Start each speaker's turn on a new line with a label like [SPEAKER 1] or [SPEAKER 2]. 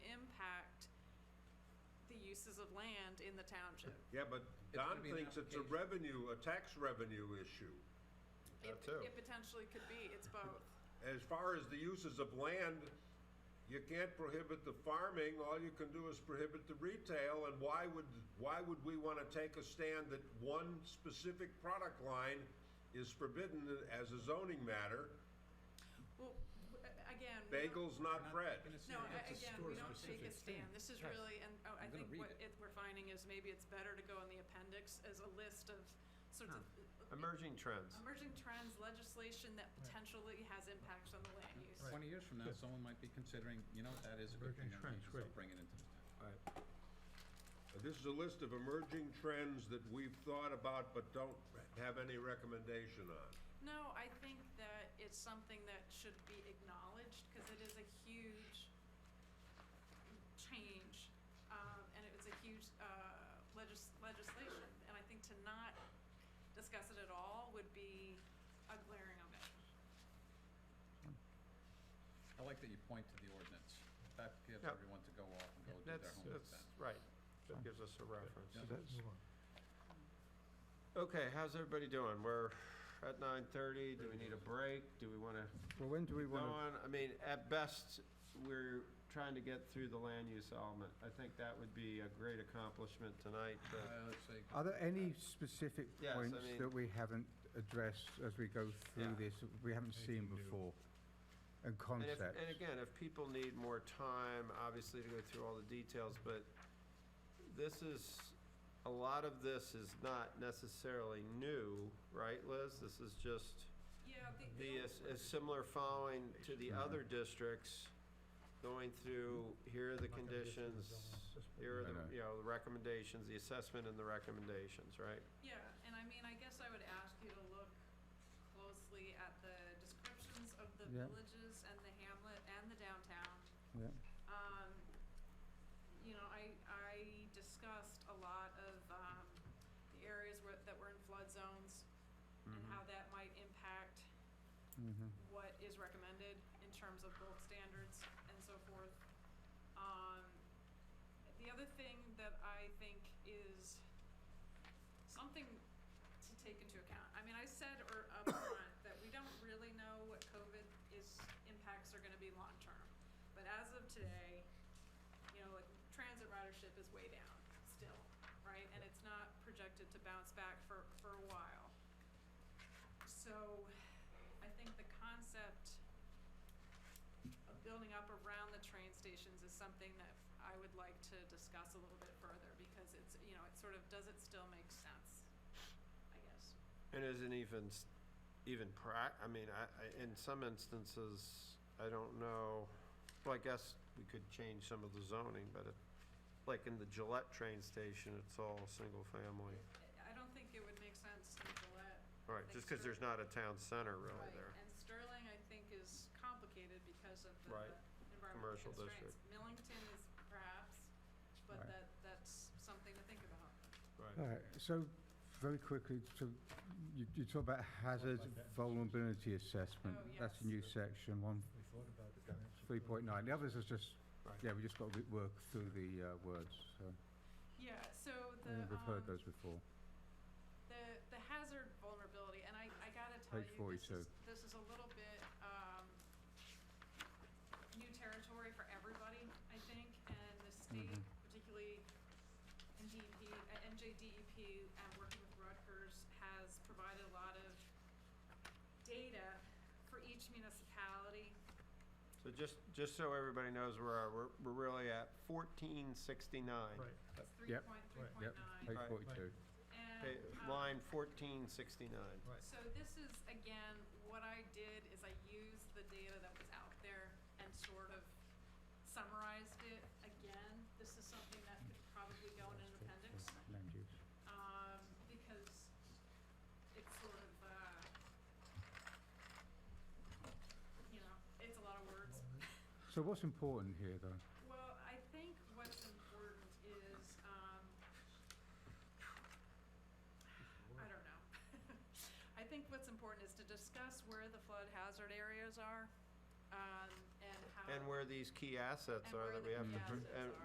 [SPEAKER 1] uses of land in the township.
[SPEAKER 2] Yeah, but Don
[SPEAKER 3] gonna be an
[SPEAKER 2] thinks it's a
[SPEAKER 3] application.
[SPEAKER 2] revenue, a tax revenue issue.
[SPEAKER 1] It-
[SPEAKER 4] That too.
[SPEAKER 1] It potentially could be, it's both.
[SPEAKER 2] As far as the uses of land, you can't prohibit the farming, all you can do is prohibit the retail, and why would, why would we want to take a stand that one specific product line is forbidden as a zoning matter?
[SPEAKER 1] Well, w- a- again. we don't-
[SPEAKER 2] Bagels, not bread.
[SPEAKER 1] No,
[SPEAKER 3] That's
[SPEAKER 1] a-
[SPEAKER 3] a
[SPEAKER 1] again, we don't take a
[SPEAKER 3] store-specific thing.
[SPEAKER 1] stand. This is
[SPEAKER 3] Yes.
[SPEAKER 1] really, and oh, I
[SPEAKER 3] I'm gonna
[SPEAKER 1] think
[SPEAKER 3] read
[SPEAKER 1] what
[SPEAKER 3] it.
[SPEAKER 1] it, we're finding is maybe it's better to go in the appendix as a list of sorts of uh,
[SPEAKER 4] Emerging trends.
[SPEAKER 1] emerging trends, legislation that potentially has impacts on the land use.
[SPEAKER 3] Twenty years from now, someone might be considering, you know, that is a good thing, that we
[SPEAKER 5] Emerging trends,
[SPEAKER 3] should start
[SPEAKER 5] right.
[SPEAKER 3] bringing into the town.
[SPEAKER 2] This is a list of emerging trends that we've thought about but don't have any recommendation on.
[SPEAKER 1] No, I think that it's something that should be acknowledged, because it is a huge change, um, and it was a huge, uh, legis- legislation, and I think to not discuss it at all would be a glaring omission.
[SPEAKER 3] I like that you point to the ordinance. That gives
[SPEAKER 4] Yeah.
[SPEAKER 3] everyone to go off and go do their
[SPEAKER 4] That's,
[SPEAKER 3] homework
[SPEAKER 4] that's,
[SPEAKER 3] then.
[SPEAKER 4] right. That gives us a reference.
[SPEAKER 3] Yeah.
[SPEAKER 4] Okay, how's everybody doing? We're at nine thirty. Do we need a break? Do we wanna
[SPEAKER 5] Well, when do we
[SPEAKER 4] go
[SPEAKER 5] want to?
[SPEAKER 4] on? I mean, at best, we're trying to get through the land use element. I think that would be a great accomplishment tonight, but
[SPEAKER 3] Uh, let's say,
[SPEAKER 5] Are there any specific
[SPEAKER 4] Yes, I
[SPEAKER 5] points
[SPEAKER 4] mean-
[SPEAKER 5] that we haven't addressed as we go
[SPEAKER 4] Yeah.
[SPEAKER 5] through this, that we haven't seen before? And
[SPEAKER 4] And if,
[SPEAKER 5] concepts?
[SPEAKER 4] and again, if people need more time, obviously to go through all the details, but this is, a lot of this is not necessarily new, right, Liz? This is just
[SPEAKER 1] Yeah, the,
[SPEAKER 4] the,
[SPEAKER 1] the,
[SPEAKER 4] a similar following to the other districts, going through, here are the conditions, here are the, you know, the recommendations, the assessment and the recommendations, right?
[SPEAKER 1] yeah, and I mean, I guess I would ask you to look closely at the descriptions of the
[SPEAKER 5] Yeah.
[SPEAKER 1] villages and the hamlet and the downtown.
[SPEAKER 5] Yeah.
[SPEAKER 1] um, you know, I, I discussed a lot of, um, the areas where, that were in flood zones and
[SPEAKER 4] Mm-hmm.
[SPEAKER 1] how that might impact
[SPEAKER 5] Mhm.
[SPEAKER 1] what is recommended in terms of bulk standards and so forth. Um, the other thing that I think is something to take into account. I mean, I said or upfront that we don't really know what COVID is, impacts are gonna be long-term. But as of today, you know, like transit ridership is way down still, right? And it's not projected to bounce back for, for a while. So, I think the concept of building up around the train stations is something that I would like to discuss a little bit further because it's, you know, it sort of, does it still make sense? I guess.
[SPEAKER 4] And isn't even, s- even prac, I mean, I, I, in some instances, I don't know, well, I guess we could change some of the zoning, but it, like in the Gillette train station, it's all single family.
[SPEAKER 1] I- I don't think it would make sense in Gillette.
[SPEAKER 4] All right, just because there's not a town center really
[SPEAKER 1] Right,
[SPEAKER 4] there.
[SPEAKER 1] And Sterling, I think, is complicated because of the
[SPEAKER 4] Right.
[SPEAKER 1] the environmental
[SPEAKER 4] Commercial
[SPEAKER 1] constraints. Millington is perhaps, but
[SPEAKER 5] Right.
[SPEAKER 1] that, that's something to think about.
[SPEAKER 5] All right, so very quickly, so you, you talk about hazard vulnerability assessment.
[SPEAKER 1] Oh,
[SPEAKER 5] That's a
[SPEAKER 1] yes.
[SPEAKER 5] new section, one, three point nine. The others is just,
[SPEAKER 4] Right.
[SPEAKER 5] yeah, we just got to work through the uh, words, so,
[SPEAKER 1] Yeah, so
[SPEAKER 5] I
[SPEAKER 1] the,
[SPEAKER 5] think we've heard
[SPEAKER 1] um,
[SPEAKER 5] those before.
[SPEAKER 1] the, the hazard vulnerability, and I, I gotta tell
[SPEAKER 5] Page
[SPEAKER 1] you, this is,
[SPEAKER 5] 42.
[SPEAKER 1] this is a little bit, um, new territory for everybody, I think, and the state,
[SPEAKER 5] Mhm.
[SPEAKER 1] particularly NDEP, uh, NJDEP, and working with Rutgers, has provided a lot of data for each municipality.
[SPEAKER 4] So just, just so everybody knows where our- we're, we're really at, fourteen sixty-nine.
[SPEAKER 1] It's three
[SPEAKER 5] Uh, Yep.
[SPEAKER 1] point, three
[SPEAKER 6] Right.
[SPEAKER 1] point nine,
[SPEAKER 5] Page
[SPEAKER 4] Right.
[SPEAKER 5] forty-two.
[SPEAKER 1] and, um,
[SPEAKER 4] Line fourteen sixty-nine.
[SPEAKER 1] So this is, again, what I did is I used the data that was out there and sort of summarized it. Again, this is something that could probably go in an appendix,
[SPEAKER 5] Land use.
[SPEAKER 1] um, because it's sort of, uh, you know, it's a lot of words.
[SPEAKER 5] So what's important here, though?
[SPEAKER 1] Well, I think what's important is, um, I don't know. I think what's important is to discuss where the flood hazard areas are, um, and how.
[SPEAKER 4] And where these key assets
[SPEAKER 1] And
[SPEAKER 4] are
[SPEAKER 1] where
[SPEAKER 4] that
[SPEAKER 1] the
[SPEAKER 4] we have to,
[SPEAKER 1] key
[SPEAKER 4] pr-
[SPEAKER 1] assets
[SPEAKER 4] and
[SPEAKER 1] are.